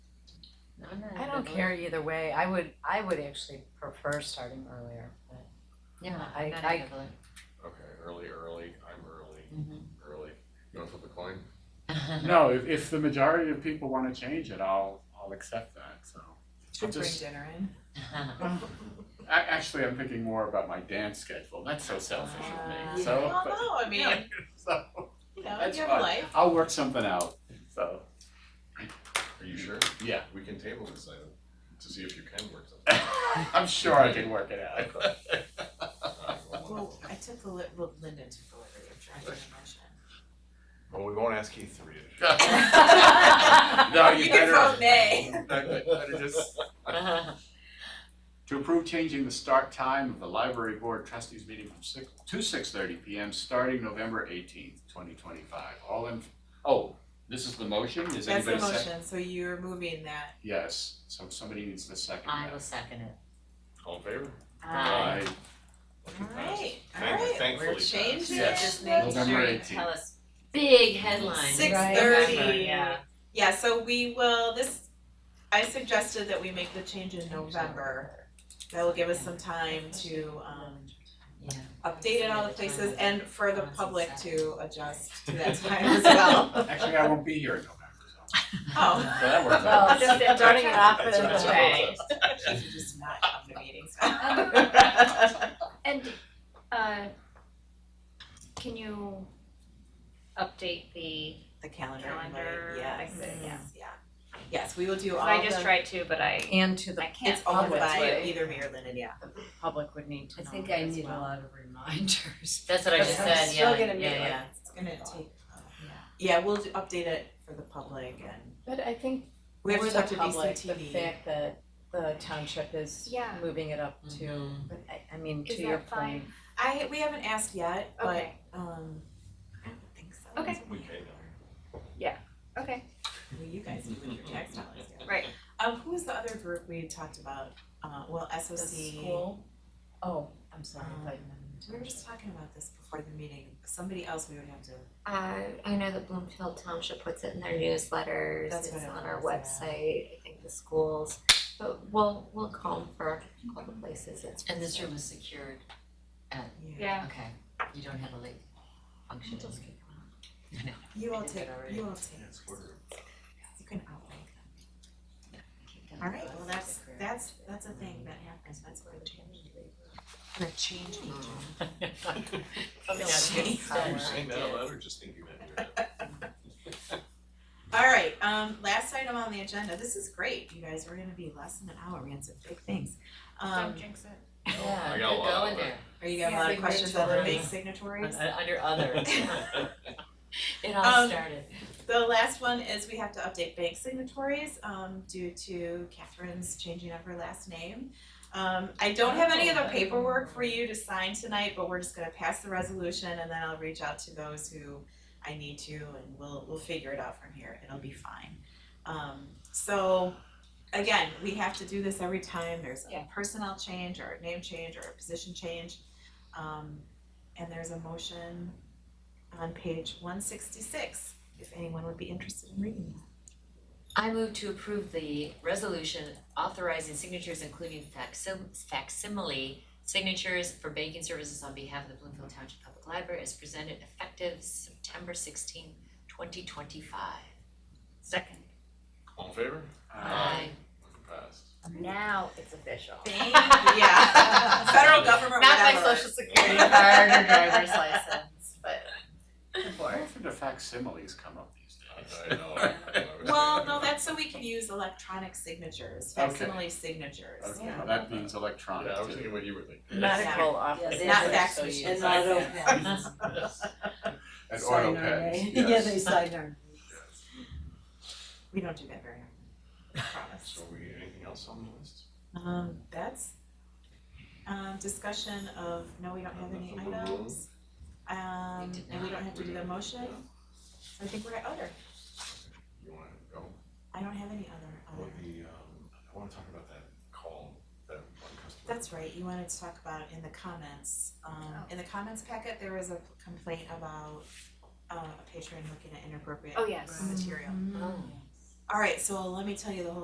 don't care either way, I would, I would actually prefer starting earlier, but Yeah, I- not I- heavily. Okay, early, early, I'm early, Mhm. Mm-hmm. early. You want to flip a coin? No, if, if the majority of people wanna change it, I'll, I'll accept that, so. I'll Should bring just- dinner in. a- Actually, I'm thinking more about my dance schedule, that's so selfish of me, so. Well, but- no, Ah, I mean, So, you know, that's you have fine. a life. I'll work something out, so, Are you sure? yeah, We can table this item to see if you can work something. I'm sure I can work it out. Alright, well, Well, I took the li- well, Linda took the liberty of trying to mention. Well, we won't ask Keith to read it. No, you better. nay. Better just- To approve changing the start time of the library board trustees meeting from six, to six thirty P M, starting November eighteenth, twenty twenty-five, all in, oh, this is the motion, is That's the anybody second? motion, so you're moving that. Yes, so somebody needs to second I will that. second it. All in favor? Aye. Motion passed. Alright, Thank- alright, thankfully we're passed. changing Yes. this. Just make November sure you 18th. tell us big headlines. Six Right. thirty. Yeah. Yeah, so we will, this, I suggested that we make the change in November. That will give us some time to um Yeah. update it all the places and for the public to adjust to that time as well. Actually, I won't be here in November, so, Oh, so that works Well, out. just starting it off That's as right. a bang. she should just not come to meetings. And uh can you update the, The calendar, invite, Calendar, yes, exit, yeah. yeah. Yes, we will do 'cause all I just the- tried to, but I And to the I can't. it's owned public by too. either me or Lyndon, yeah. public would need to I know think that I as need a well. lot of reminders. That's what I just I'm said, still yeah, yeah, gonna be like- yeah. It's gonna take, uh, yeah, we'll do- update it for the public and But I think we have for to the talk to public, BCTV. the fact that the township is Yeah. moving it up to, Mhm. but I, I mean, Is to your that fine? point. I, we haven't asked yet, but, Okay. um, I don't think so. Okay. We can. Okay, Well, you guys do with your tax dollars, yeah. Right. Um, who was the other group we had talked about, uh, well, The SOC. school? Oh, I'm sorry, I thought you meant. Um, We were just talking about this before the meeting, somebody else we would have to, Uh, I know that Bloomfield Township puts it in their newsletters, That's it's what it on our was, yeah. website, I think the schools, but we'll, we'll call 'em for all the places it's. And this room is secured, yeah. yeah. okay, you don't have a leak function. You all I did take, already. you all take, Yeah, it's quarter. you can outline them. Alright, well, that's, that's, that's a thing that happens, that's where the change is. The change agent. Coming Are you saying that out loud or just thinking that you're? Alright, um, last item on the agenda, this is great, you guys, we're gonna be less than an hour, we had some big things. Um, Don't jinx it. Yeah, I got a good lot going of that. there, are you got a lot of questions on the big Signatories. signatories? Un- under other, it all Um, started. The last one is we have to update bank signatories um due to Catherine's changing of her last name. Um I don't have any of the paperwork for you to sign tonight, but we're just gonna pass the resolution and then I'll reach out to those who I need to and we'll we'll figure it out from here. It'll be fine. Um so again, we have to do this every time there's Yeah. a personnel change or a name change or a position change. Um and there's a motion on page one sixty-six if anyone would be interested in reading that. I move to approve the resolution authorizing signatures including facsim- facsimile signatures for banking services on behalf of the Bloomfield Township Public Library as presented effective September 16, twenty twenty-five. Second. All in favor? Uh, Motion passed. Now it's official. yeah. Federal government, Not my whatever. social security card or driver's license, but the How board. often do facsimiles come up these days? I know. I was thinking Well, no, about that's so we can use electronic signatures, Okay. facsimile signatures. Okay, yeah. well, that means that. electronic Yeah, I was too. thinking what you were thinking. Medical office. Yes, Not They're fax so machines. you- And not open. And Sign auto our pens, name. Yeah, yes. they sign our. We don't do that very often, I promise. So we, anything else on the list? Um, that's, um, discussion of, no, we don't have any Nothing on the items. Um, We did and we don't have to do the motion, Yeah. I think we're at other, You wanna go? I don't have any other, Well, other. the, um, I wanna talk about that call, that one customer. That's right, you wanted to talk about in the comments, um, in the comments packet, there was a complaint about, uh, a patron looking at inappropriate Oh, yes. material. Oh. Alright, so let me tell you the whole